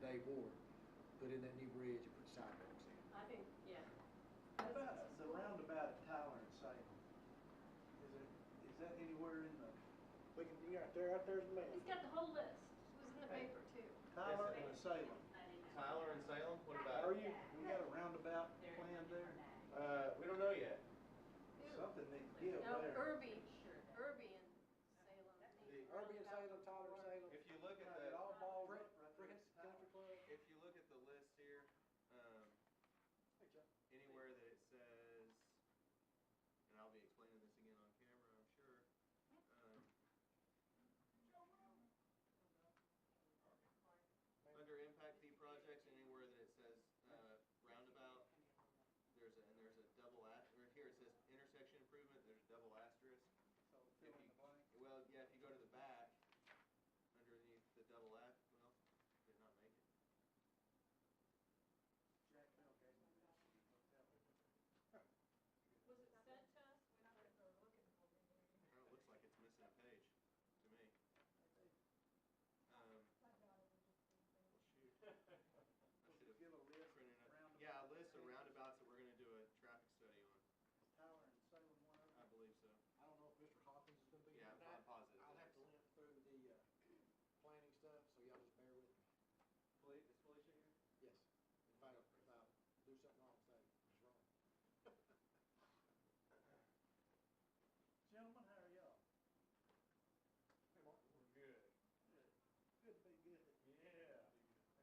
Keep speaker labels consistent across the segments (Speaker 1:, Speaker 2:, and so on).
Speaker 1: Bay Ward, put in that new bridge and put sidewalks in.
Speaker 2: I think, yeah.
Speaker 3: How about the roundabout at Tyler and Salem? Is it, is that anywhere in the
Speaker 4: We can, we got, there, there's a
Speaker 2: He's
Speaker 4: man.
Speaker 2: got the whole list. It was in the paper too.
Speaker 3: Tyler and the Salem?
Speaker 5: Tyler and Salem, what
Speaker 4: Are
Speaker 5: about?
Speaker 4: you,
Speaker 3: We got a roundabout planned there?
Speaker 5: Uh, we don't know yet.
Speaker 3: Something needs to give
Speaker 2: No,
Speaker 3: there.
Speaker 2: Irby, Irby and Salem.
Speaker 1: Irby and Salem, Tyler and Salem.
Speaker 5: If you look at
Speaker 3: Got
Speaker 5: the,
Speaker 3: it all balled up right there.
Speaker 1: Ricketts Country Club.
Speaker 5: if you look at the list here, um,
Speaker 1: Hey, Jeff.
Speaker 5: anywhere that it says, and I'll be explaining this again on camera, I'm sure. um, Under impact fee projects, anywhere that it says, uh, roundabout, there's a, and there's a double a, right here it says intersection improvement, there's a double asterisk.
Speaker 3: So fill in the blank.
Speaker 5: Well, yeah, if you go to the back, underneath the double F, well, did not make it.
Speaker 3: Jack Bell gave me this. and he looked at it.
Speaker 2: Was it sent to us?
Speaker 5: Well, it looks like it's missing a page to me. Um, well, shoot. I should have
Speaker 3: Give a list
Speaker 5: printed
Speaker 3: of
Speaker 5: it. Um, Yeah,
Speaker 3: roundabout.
Speaker 5: a list of roundabouts that we're gonna do a traffic study on.
Speaker 3: Is Tyler and Salem one of
Speaker 5: I
Speaker 3: them?
Speaker 5: believe so.
Speaker 4: I don't know if Mr. Hawkins is gonna be here
Speaker 5: Yeah, I'm- I'm
Speaker 4: tonight.
Speaker 5: positive.
Speaker 4: I'll
Speaker 5: that
Speaker 4: have to
Speaker 5: it's-
Speaker 4: limp through the, uh, planning stuff, so y'all just bear with me.
Speaker 5: Felicia, is Felicia here?
Speaker 4: Yes. If I, if I do something wrong, say it's wrong.
Speaker 3: Gentlemen, how are y'all?
Speaker 6: Hey, Mark, we're good.
Speaker 3: Good. Good to be good.
Speaker 6: Yeah.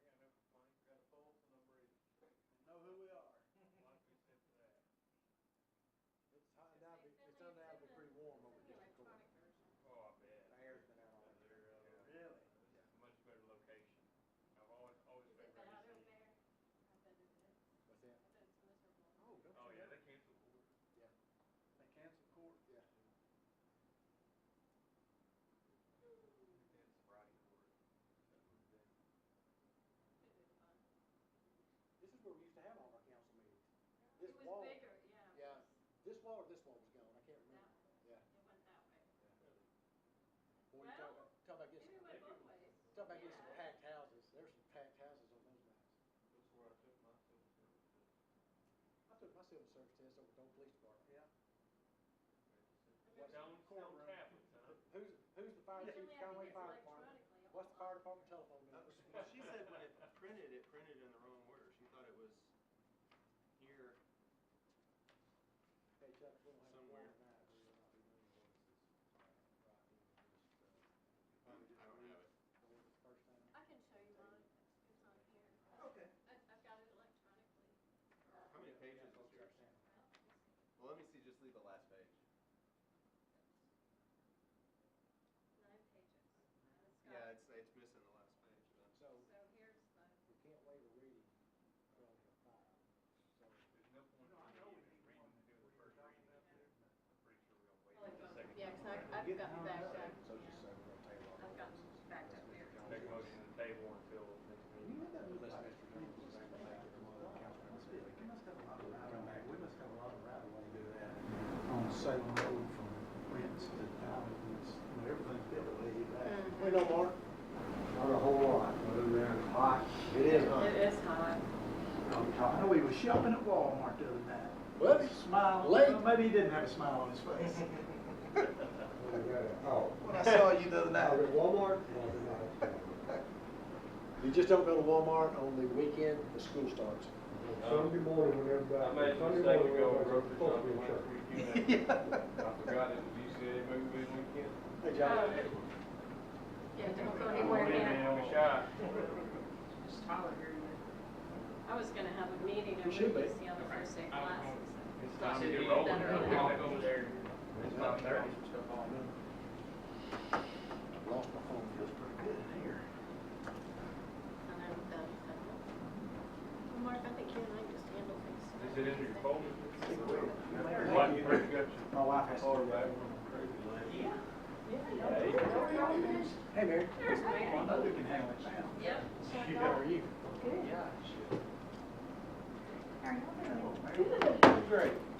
Speaker 6: I got no complaints, got a pulse and I'm breathing,
Speaker 3: And know who we are.
Speaker 6: like we said today.
Speaker 4: It's undoubtedly, it's undoubtedly pretty warm over there.
Speaker 2: Electronic version.
Speaker 6: Oh, I bet.
Speaker 4: The air's been out all day.
Speaker 6: This
Speaker 3: Really?
Speaker 6: is a much better location. I've always, always
Speaker 2: Is
Speaker 6: been
Speaker 2: it
Speaker 6: ready
Speaker 2: out
Speaker 6: to
Speaker 2: over
Speaker 6: see.
Speaker 2: there? I've been over there.
Speaker 4: What's that?
Speaker 2: I bet it's miserable.
Speaker 4: Oh, don't
Speaker 6: Oh,
Speaker 4: you
Speaker 6: yeah,
Speaker 4: know?
Speaker 6: they canceled.
Speaker 4: Yeah,
Speaker 3: They canceled court.
Speaker 4: yeah.
Speaker 5: It's Friday
Speaker 2: Could've
Speaker 5: morning.
Speaker 2: been fun.
Speaker 4: This is where we used to have all our council meetings. This
Speaker 2: It
Speaker 4: wall-
Speaker 2: was bigger, yeah. it
Speaker 4: Yeah,
Speaker 2: was
Speaker 4: this wall or this wall was gone, I can't
Speaker 2: That
Speaker 4: remember.
Speaker 2: way.
Speaker 4: Yeah.
Speaker 2: It went that way.
Speaker 4: Boy, you talk
Speaker 2: Well,
Speaker 4: about, talk about
Speaker 2: Maybe
Speaker 4: getting,
Speaker 2: it went both ways.
Speaker 4: talk about getting some
Speaker 2: Yeah.
Speaker 4: packed houses, there's some packed houses on those nights.
Speaker 6: That's where I took my civil service test.
Speaker 4: I took my civil service test over at Dole Police Department.
Speaker 3: Yeah.
Speaker 4: What's-
Speaker 6: Stone, stone
Speaker 3: Courtroom.
Speaker 6: tablets, huh?
Speaker 4: Who's, who's the fire chief,
Speaker 2: Usually I think
Speaker 4: Conway
Speaker 2: it's
Speaker 4: Fire Department?
Speaker 2: electronically.
Speaker 4: What's the fire department telephone
Speaker 5: That
Speaker 4: number?
Speaker 5: was- well, Oh, She said when it printed, it printed in the wrong order. She thought it was here.
Speaker 4: Hey Chuck, we don't have a quorum
Speaker 5: Somewhere.
Speaker 4: tonight, we will not be doing voices.
Speaker 5: Um, I don't have it.
Speaker 4: The one that's first thing.
Speaker 2: I can show you mine. It's on here.
Speaker 3: Okay.
Speaker 2: I, I've got it electronically.
Speaker 5: How many pages is yours?
Speaker 2: Well, let's see.
Speaker 5: Well, let me see, just leave the last page.
Speaker 2: Nine pages. And it's got-
Speaker 5: Yeah, it's, it's missing the last page, but.
Speaker 4: So,
Speaker 2: So here's the,
Speaker 4: we can't waive a reading for only a fire, so.
Speaker 6: There's no point
Speaker 3: No, I
Speaker 6: in
Speaker 3: know we
Speaker 6: even
Speaker 3: need
Speaker 6: reading,
Speaker 3: one.
Speaker 6: doing the first reading up there. I'm pretty sure we'll wait.
Speaker 2: Well,
Speaker 6: for the second
Speaker 2: yeah,
Speaker 6: one.
Speaker 2: 'cause I- I've gotten backed up.
Speaker 4: So just
Speaker 2: yeah.
Speaker 4: say we're gonna table all the voices.
Speaker 2: I've gotten backed up there.
Speaker 6: Make a motion to table until next meeting.
Speaker 4: Unless Mr. Jones is able to make it, one of the council members, they can
Speaker 3: must have a lot
Speaker 4: come back.
Speaker 3: We must have a lot of right of way to do that. On Salem Road from Prince to Towns, everything's built way back.
Speaker 4: We know Mark.
Speaker 7: Not a whole lot, other than it's hot. It is
Speaker 2: it is hot.
Speaker 3: Oh, I know he was shopping at Walmart the other night.
Speaker 4: Well, it's
Speaker 3: Smile,
Speaker 4: Late.
Speaker 3: well, maybe he didn't have a smile on his face.
Speaker 7: Oh.
Speaker 3: When I saw you the other
Speaker 7: Now,
Speaker 3: night.
Speaker 7: the Walmart?
Speaker 4: You just don't go to Walmart on the weekend, the school starts.
Speaker 7: Sunday morning when everybody.
Speaker 6: I made a
Speaker 7: Sunday
Speaker 6: mistake to
Speaker 7: morning,
Speaker 6: go
Speaker 7: everybody's supposed to
Speaker 6: grocery
Speaker 7: be
Speaker 6: shopping last
Speaker 7: shopping.
Speaker 6: weekend. I forgot it was UCLA movie weekend.
Speaker 4: Hey, John.
Speaker 2: Oh, Yeah, don't go
Speaker 6: I
Speaker 2: anywhere
Speaker 6: went in
Speaker 2: now.
Speaker 6: and I was shy.
Speaker 2: Just Tyler here yet. I was gonna have a meeting over
Speaker 4: You should be.
Speaker 2: this the other first day of classes.
Speaker 6: It's
Speaker 2: time to
Speaker 6: time to
Speaker 2: get
Speaker 6: get
Speaker 2: rolling.
Speaker 6: rolling.
Speaker 2: I'll
Speaker 6: go there. It's about thirty.
Speaker 4: Lost my phone.
Speaker 3: Feels pretty good in here.
Speaker 2: And I'm done. Well, Mark, I think you and I just handle things.
Speaker 6: Is it in your folder?
Speaker 3: My
Speaker 6: Why you break up your
Speaker 3: wife has.
Speaker 6: folder back from crazy lady? Yeah.
Speaker 4: Hey, Mary.
Speaker 2: There's Mary.
Speaker 3: Another can handle it now.
Speaker 2: Yep.
Speaker 4: How are you?
Speaker 3: Yeah, shit.
Speaker 8: How are y'all doing?
Speaker 3: Great.